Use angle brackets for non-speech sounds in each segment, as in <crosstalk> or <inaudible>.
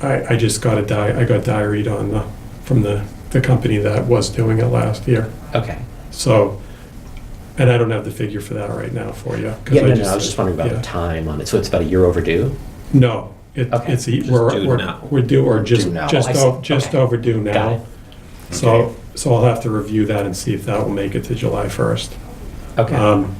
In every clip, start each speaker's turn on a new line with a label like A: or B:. A: I, I just got a di, I got diaried on the, from the, the company that was doing it last year.
B: Okay.
A: So, and I don't have the figure for that right now for you. 'cause
B: Yeah, no, no, I was just wondering about
A: yeah.
B: the time on it. So it's about a year overdue?
A: No, it,
B: Okay. Oh,
A: it's, e-
C: Just
A: we're,
C: due
A: we're,
C: now.
A: we're due, or just,
C: Due now.
A: just,
B: I see.
A: o- just
B: Okay.
A: overdue now.
B: Got it.
A: So, so I'll have to review that and see if that will make it to July 1st.
B: Okay.
A: Um,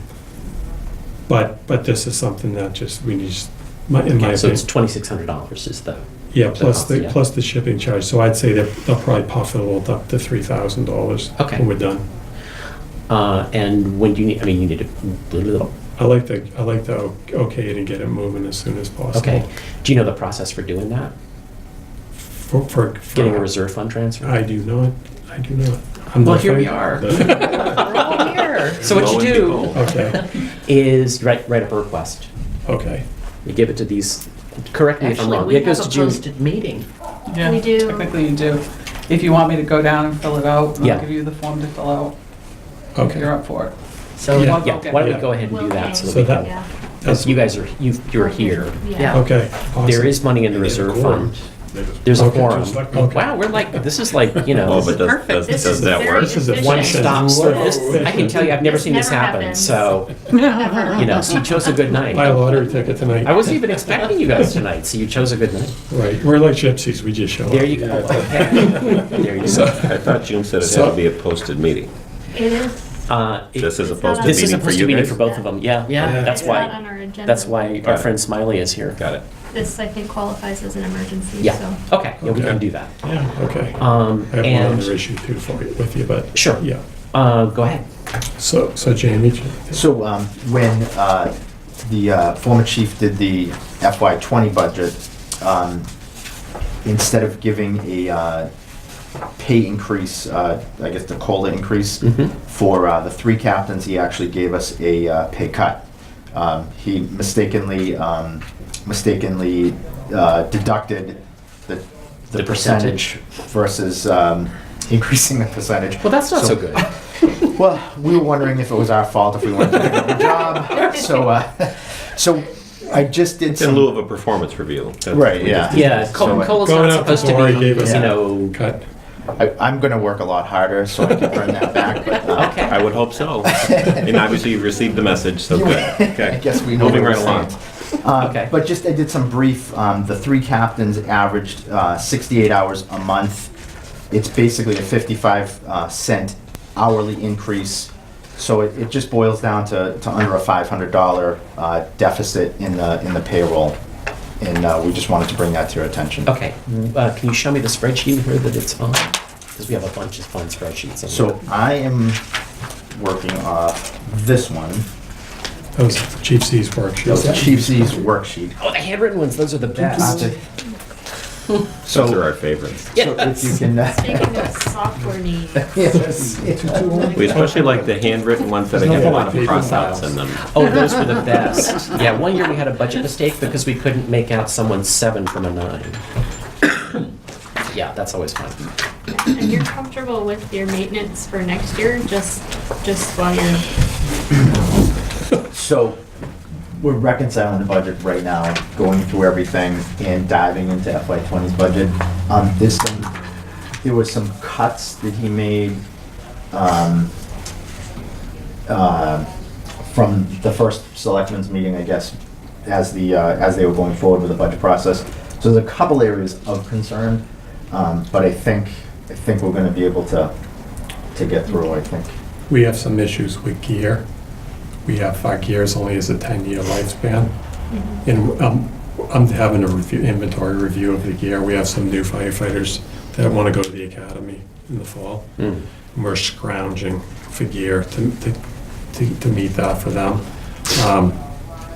A: But, but this is something that just, we need, just- my- in my
B: Okay, so it's
A: opinion.
B: twenty-six hundred dollars is the,
A: Yeah, plus
B: cost,
A: the,
B: yeah.
A: plus the shipping charge. So I'd say that they'll probably puff it all up to $3,000.
B: Okay.
A: When we're done.
B: uh, and when do you need, I mean, you need to, blah, blah, blah.
A: I like to, I like to o- okay it and get it moving as soon as possible.
B: okay. Do you know the process for doing that?
A: For, for. for-
B: Getting a reserve fund transfer?
A: I do not, I do not. I'm
B: Well,
A: not
B: here we
A: fin-
B: are.
A: the-
B: We're all here. <laughs> So
C: Lo
B: what you
C: and
B: do
A: <laughs>
C: behold.
A: Okay,
B: is write, write up a request.
A: okay.
B: You give it to these, correct me if I'm
D: Actually,
B: wrong.
D: we
B: It
D: have
B: goes to
D: a
B: June.
D: posted meeting.
E: Yeah,
F: We do.
E: Technically, you do. If you want me to go down and fill it out,
B: Yeah.
E: I'll give you the form to fill out. If
A: Okay.
E: you're up for it.
B: So,
A: Yeah.
B: yeah, why don't we go ahead and do that so that we can,
F: yeah.
B: because you guys are, you, you're here.
F: Yeah.
A: Okay.
B: There
A: awesome.
B: is money in the
C: They have a
B: reserve
C: quorum.
B: fund. There's a
A: Okay.
B: quorum.
A: Okay.
B: Wow, we're like, this is like, you know,
C: Oh, but does,
D: perfect.
C: does,
F: This
C: does
F: is
C: that
F: very
C: <laughs> work?
A: This is a
F: efficient.
A: one-stop
B: one-stop service. I can tell you, I've never
F: This
B: seen this
F: never
B: happen,
F: happens.
B: so, you know, so you chose a good
A: Buy a
B: night.
A: lottery ticket tonight.
B: I wasn't even expecting you guys tonight, so you chose a good night.
A: Right, we're like gypsies, we just show up.
B: There you go. Okay. <laughs> There you
C: So,
B: go.
C: I thought June said it had
A: So-
C: to be a posted meeting.
F: It is.
B: Uh, it-
C: This is a
F: It's not
C: posted
F: on-
B: This is
C: meeting
B: a
C: for
B: posted
C: you
B: meeting
C: guys?
B: for both of them, yeah.
A: Yeah.
B: That's
F: It's not on
B: why,
F: our agenda.
B: that's why our
C: Got it.
B: friend Smiley is here.
C: Got it.
F: This, I think, qualifies as an emergency,
B: Yeah,
F: so.
B: okay, yeah, we
A: Okay.
B: can do that.
A: Yeah, okay.
B: Um,
A: I have one other
B: and,
A: issue too for you, with you, but.
B: Sure.
A: Yeah,
B: uh, go ahead.
A: so, so Jamie,
G: So um, when uh, the uh, former chief did the FY '20 budget, um, instead of giving a uh, pay increase, uh, I guess the COLA increase
B: Mhm.
G: for uh, the three captains, he actually gave us a uh, pay cut. Um, He mistakenly, um, mistakenly uh, deducted the
B: The
G: the
B: percentage.
G: percentage versus um, <laughs> increasing the percentage.
B: Well, that's not so good.
G: <laughs> Well, we were wondering if it was our fault if we wanted to do a good job. So, uh, so I just did
C: It's in
G: some.
C: lieu of a performance review. That's-
G: Right,
C: we
G: yeah.
B: Yeah,
G: So,
B: Col-
G: uh,
B: Cola's
A: going
B: not
A: out the
B: supposed to
A: door, he
B: be,
A: gave us-
B: you know,
A: cut.
G: I, I'm going to work a lot harder so I can earn that back. But uh,
B: okay.
C: I would hope so. And obviously you've received the message,
A: <laughs>
C: so good. Okay.
G: I guess we know
C: Moving
G: where
C: right
G: we
C: along.
G: Uh,
B: <laughs> Okay.
G: But just I did some brief. Um, the three captains averaged uh, 68 hours a month. It's basically a 55 uh, cent hourly increase. So it, it just boils down to, to under a $500 uh, deficit in the in the payroll, and uh, we just wanted to bring that to your attention.
B: Okay, uh, can you show me the spreadsheet here that it's on? Because we have a bunch of fun spreadsheets. in
G: So
B: here.
G: I am working off this one.
A: That was gypsies workshop.
G: That's Chiefsy's worksheet. Uh,
B: Oh, the handwritten ones, those are the best.
G: So,
C: Those are our favorites.
G: so if you can.
B: Oh.
G: uh,
B: <laughs>
F: Speaking of software needs,
G: <laughs> Yes.
C: We especially like the handwritten ones that
A: There's
C: have a
A: nothing
C: lot
A: like
C: of cross
A: paper
C: outs in them.
B: Oh, those were the best. Yeah, one year we had a budget mistake because we couldn't make out someone's seven from a nine. <coughs> Yeah, that's always fun.
F: and you're comfortable with your maintenance for next year, just, just while you're,
G: So, we're reconciling the budget right now, going through everything and diving into FY 20s budget. Um, there's some, there was some cuts that he made, um, uh, from the first selectmen's meeting, I guess, as the, uh, as they were going forward with the budget process. So there's a couple areas of concern, um, but I think, I think we're gonna be able to, to get through, I think.
A: We have some issues with gear. We have, our gears only has a 10-year lifespan. And um, I'm having a review, inventory review of the gear. We have some new firefighters that want to go to the academy in the fall.
B: Mm.
A: And We're scrounging for gear to, to, to to meet that for them. Um,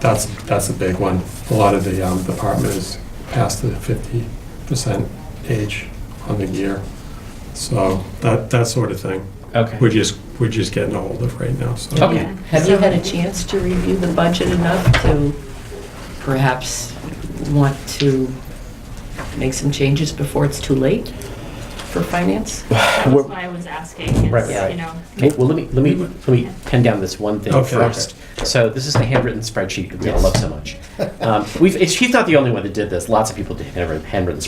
A: That's, that's a big one. A lot of the um, department is past the 50% age on the gear. So that, that sort of thing.
B: Okay.
A: We're just, we're just getting a hold of right now, so.
B: Okay.
D: Have you had a chance to review the budget enough to perhaps want to make some changes before it's too late for finance?
F: that was why I was asking,
B: Right,
F: is,
B: right.
F: you know.
B: Okay, well, let me, let me, let me pin down this one thing
A: Okay.
B: first. So this is the handwritten spreadsheet that we all love so much. Um, We've, it's- she's not the only one that did this, lots of people did handwritten handwritten